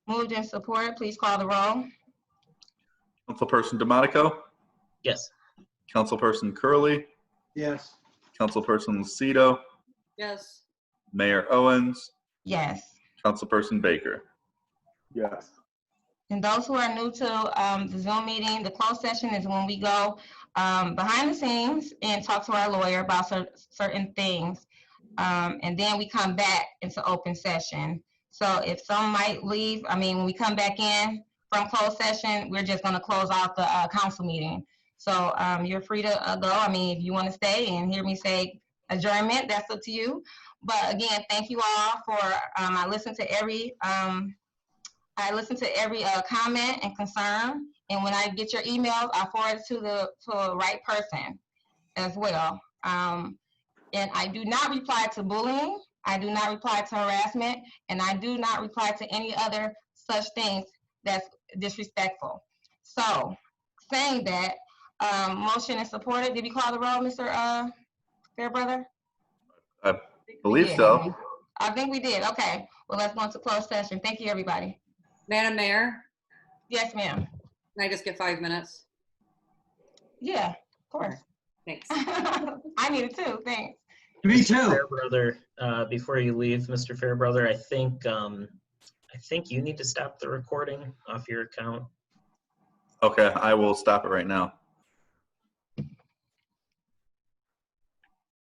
Moved and supported, please call the roll. Councilperson DeMonico, Yes. Councilperson Curley, yes, Councilperson Lucido, yes, Mayor Owens, Yes. Councilperson Baker. yes, And those who are new to um, the Zoom meeting, the closed session is when we go um, behind the scenes and talk to our lawyer about cer- certain things. Um, And then we come back into open session. So if some might leave, I mean, when we come back in from closed session, we're just going to close out the uh, council meeting. So um, you're free to uh, go. I mean, if you want to stay and hear me say adjournment, that's up to you. But again, thank you all for, um, I listened to every um, I listen to every uh, comment and concern, and when I get your emails, I forward it to the to the right person as well. Um, and I do not reply to bullying. I do not reply to harassment, and I do not reply to any other such things that's disrespectful. So, saying that, um, motion is supported. Did we call the roll, Mr. Uh, Fairbrother? Believe Yeah. so. I think we did. Okay. Well, let's go into closed session. Thank you, everybody. Madam Mayor, Yes, ma'am. can I just get five minutes? Yeah, of course. Thanks. I need it too, thanks. me Mr. too. Fairbrother, uh, before you leave, Mr. Fairbrother, I think, um, I think you need to stop the recording off your account. Okay, I will stop it right now.